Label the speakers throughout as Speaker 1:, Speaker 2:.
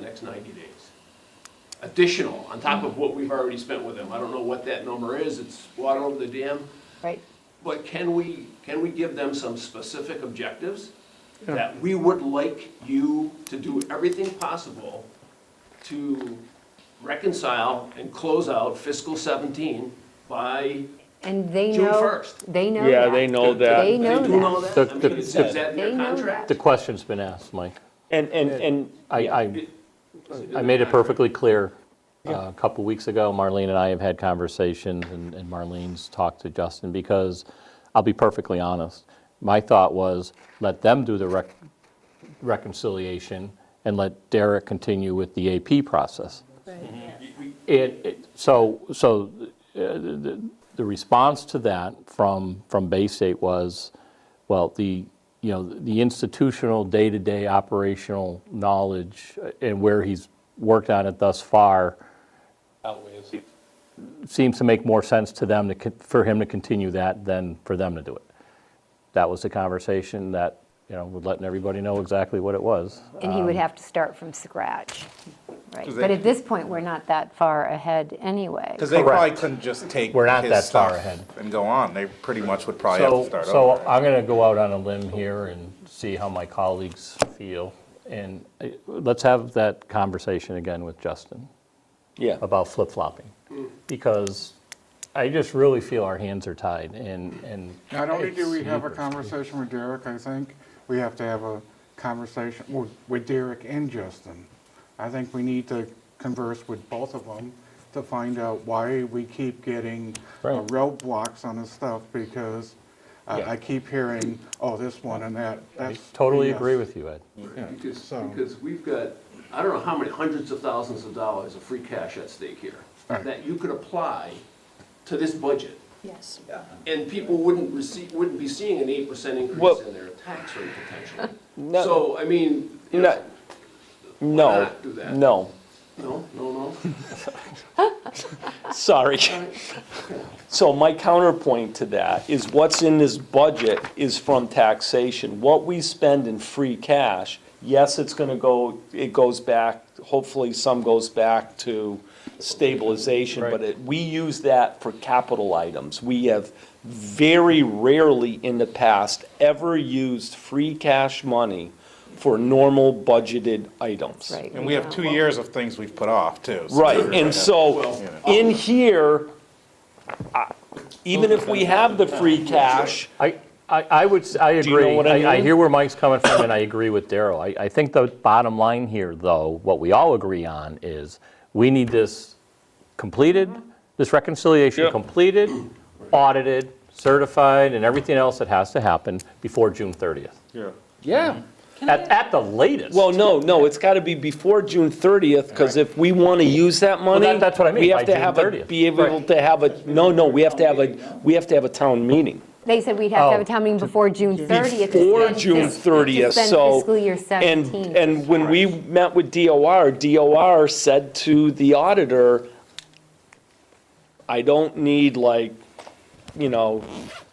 Speaker 1: next ninety days. Additional, on top of what we've already spent with them. I don't know what that number is, it's water over the dam.
Speaker 2: right?
Speaker 1: But can we, can we give them some specific objectives? That we would like you to do everything possible to reconcile and close out fiscal seventeen by,
Speaker 2: And they
Speaker 1: June
Speaker 2: know.
Speaker 1: 1st.
Speaker 2: They know
Speaker 3: Yeah,
Speaker 2: that.
Speaker 3: they know that.
Speaker 2: They know
Speaker 1: they do know
Speaker 2: that.
Speaker 1: that?
Speaker 4: The-
Speaker 1: I mean, is is that in
Speaker 2: They
Speaker 1: their
Speaker 2: know that.
Speaker 1: contract?
Speaker 4: The question's been asked, Mike.
Speaker 3: And, and, and
Speaker 4: I, I, I made it perfectly clear uh, a couple weeks ago. Marlene and I have had conversations, and and Marlene's talked to Justin, because I'll be perfectly honest. My thought was, let them do the rec- reconciliation and let Derek continue with the AP process. It, it- so, so uh, the- the the response to that from, from Bay State was, well, the, you know, the institutional, day-to-day operational knowledge uh, and where he's worked on it thus far seems to make more sense to them to, con- for him to continue that than for them to do it. That was the conversation that, you know, we're letting everybody know exactly what it was.
Speaker 2: And he would have to start from scratch, right?
Speaker 5: 'Cause
Speaker 2: But
Speaker 5: they-
Speaker 2: at this point, we're not that far ahead anyway.
Speaker 5: Because they probably
Speaker 4: Correct.
Speaker 5: couldn't just take
Speaker 4: We're not
Speaker 5: his
Speaker 4: that far
Speaker 5: stuff
Speaker 4: ahead.
Speaker 5: and go on. They pretty much would probably Oh, have to
Speaker 4: So,
Speaker 5: start
Speaker 4: so
Speaker 5: over.
Speaker 4: I'm going to go out on a limb here and see how my colleagues feel. And uh, let's have that conversation again with Justin
Speaker 3: yeah,
Speaker 4: about flip-flopping. Because I just really feel our hands are tied and, and.
Speaker 6: Not only do we have a
Speaker 4: It's-
Speaker 6: conversation with Derek, I think we have to have a conversation with- with Derek and Justin. I think we need to converse with both of them to find out why we keep getting uh,
Speaker 4: Right.
Speaker 6: roadblocks on this stuff because I-
Speaker 4: Yeah.
Speaker 6: I keep hearing, oh, this one and that.
Speaker 4: I
Speaker 6: That's
Speaker 4: Totally
Speaker 6: BS.
Speaker 4: agree with you, Ed.
Speaker 1: Because,
Speaker 6: So-
Speaker 1: because we've got, I don't know how many hundreds of thousands of dollars of free cash at stake here
Speaker 6: Right.
Speaker 1: that you could apply to this budget.
Speaker 7: Yes.
Speaker 1: And people wouldn't receive, wouldn't be seeing an eight percent increase
Speaker 3: Well-
Speaker 1: in their tax rate potentially.
Speaker 3: No.
Speaker 1: So, I mean, you
Speaker 3: no,
Speaker 1: know,
Speaker 3: no,
Speaker 1: not do that?
Speaker 3: no,
Speaker 1: no, no, no.
Speaker 3: sorry. So my counterpoint to that is what's in this budget is from taxation. What we spend in free cash, yes, it's gonna go, it goes back, hopefully some goes back to stabilization, but it, we use that for capital items. We have very rarely in the past ever used free cash money for normal budgeted items.
Speaker 2: Right.
Speaker 5: And we have two years of things we've put off, too. so-
Speaker 3: Right, and so, in here, I- even if we have the free cash,
Speaker 4: I, I I would, s- I
Speaker 3: Do you know
Speaker 4: agree.
Speaker 3: what I
Speaker 4: I
Speaker 3: mean?
Speaker 4: hear where Mike's coming from, and I agree with Daryl. I, I think the bottom line here, though, what we all agree on is, we need this completed, this reconciliation
Speaker 3: Yep.
Speaker 4: completed, audited, certified, and everything else that has to happen before June 30th.
Speaker 3: yeah.
Speaker 4: At, at the latest.
Speaker 3: Well, no, no, it's got to be before June 30th, because if we want to use that money.
Speaker 4: that- that's what I mean,
Speaker 3: we have
Speaker 4: by
Speaker 3: to
Speaker 4: June
Speaker 3: have a-
Speaker 4: 30th.
Speaker 3: Be able to have a, no, no, we have to have a, we have to have a town meeting.
Speaker 2: They said we'd have to have a
Speaker 4: Oh,
Speaker 2: town meeting before June 30th. to
Speaker 3: Before
Speaker 2: spend
Speaker 3: June
Speaker 2: fis-
Speaker 3: 30th,
Speaker 2: To
Speaker 3: so-
Speaker 2: spend fiscal year
Speaker 3: And,
Speaker 2: 17.
Speaker 3: and when we met with DOR, DOR said to the auditor, I don't need like, you know,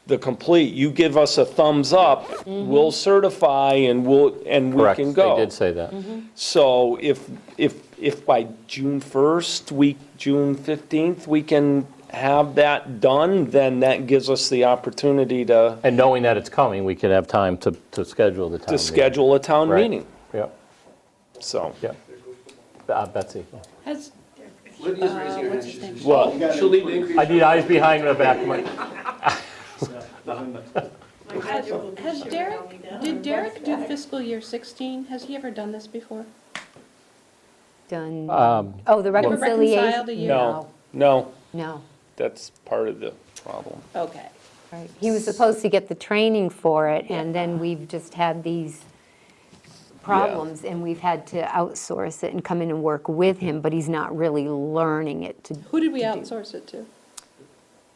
Speaker 3: the complete, you give us a thumbs up, we'll certify and we'll, and we
Speaker 4: Correct,
Speaker 3: can
Speaker 4: they
Speaker 3: go.
Speaker 4: did say that.
Speaker 3: So if, if, if by June 1st, week, June 15th, we can have that done, then that gives us the opportunity to,
Speaker 4: And knowing that it's coming, we could have time to, to schedule the town
Speaker 3: to
Speaker 4: meeting.
Speaker 3: schedule a town
Speaker 4: Right.
Speaker 3: meeting,
Speaker 4: Yep,
Speaker 3: so.
Speaker 4: yep. Uh, Betsy.
Speaker 7: Has,
Speaker 1: Lydia's raising her hand.
Speaker 7: what's his name?
Speaker 1: She's-
Speaker 3: Well,
Speaker 1: She'll need to increase.
Speaker 4: I need eyes behind my back. Mike.
Speaker 7: has has Derek, did Derek do fiscal year 16? Has he ever done this before?
Speaker 2: Done.
Speaker 4: Um,
Speaker 2: Oh, the
Speaker 7: Ever reconciled
Speaker 2: reconciliation?
Speaker 7: a year?
Speaker 3: No, no,
Speaker 2: No,
Speaker 3: that's part of the problem.
Speaker 7: Okay.
Speaker 2: right. He was supposed to get the training for it, and then we've just had these problems, and we've had to outsource it and come in and work with him, but he's not really learning it to
Speaker 7: Who did we outsource it to?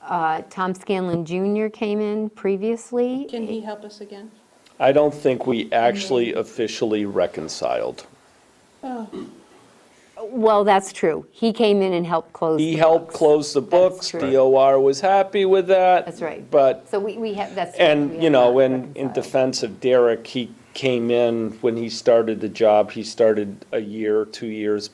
Speaker 2: Uh, Tom Scanlon Jr. came in previously.
Speaker 7: Can he help us again?
Speaker 3: I don't think we actually officially reconciled.
Speaker 7: Oh,
Speaker 2: Well, that's true. He came in and helped close.
Speaker 3: He
Speaker 2: the
Speaker 3: helped
Speaker 2: books.
Speaker 3: close the books,
Speaker 2: true.
Speaker 3: DOR was happy with that.
Speaker 2: That's right.
Speaker 3: But
Speaker 2: So we, we have, that's.
Speaker 3: And, you know, in, in
Speaker 2: defense.
Speaker 3: defense of Derek, he came in, when he started the job, he started a year, two years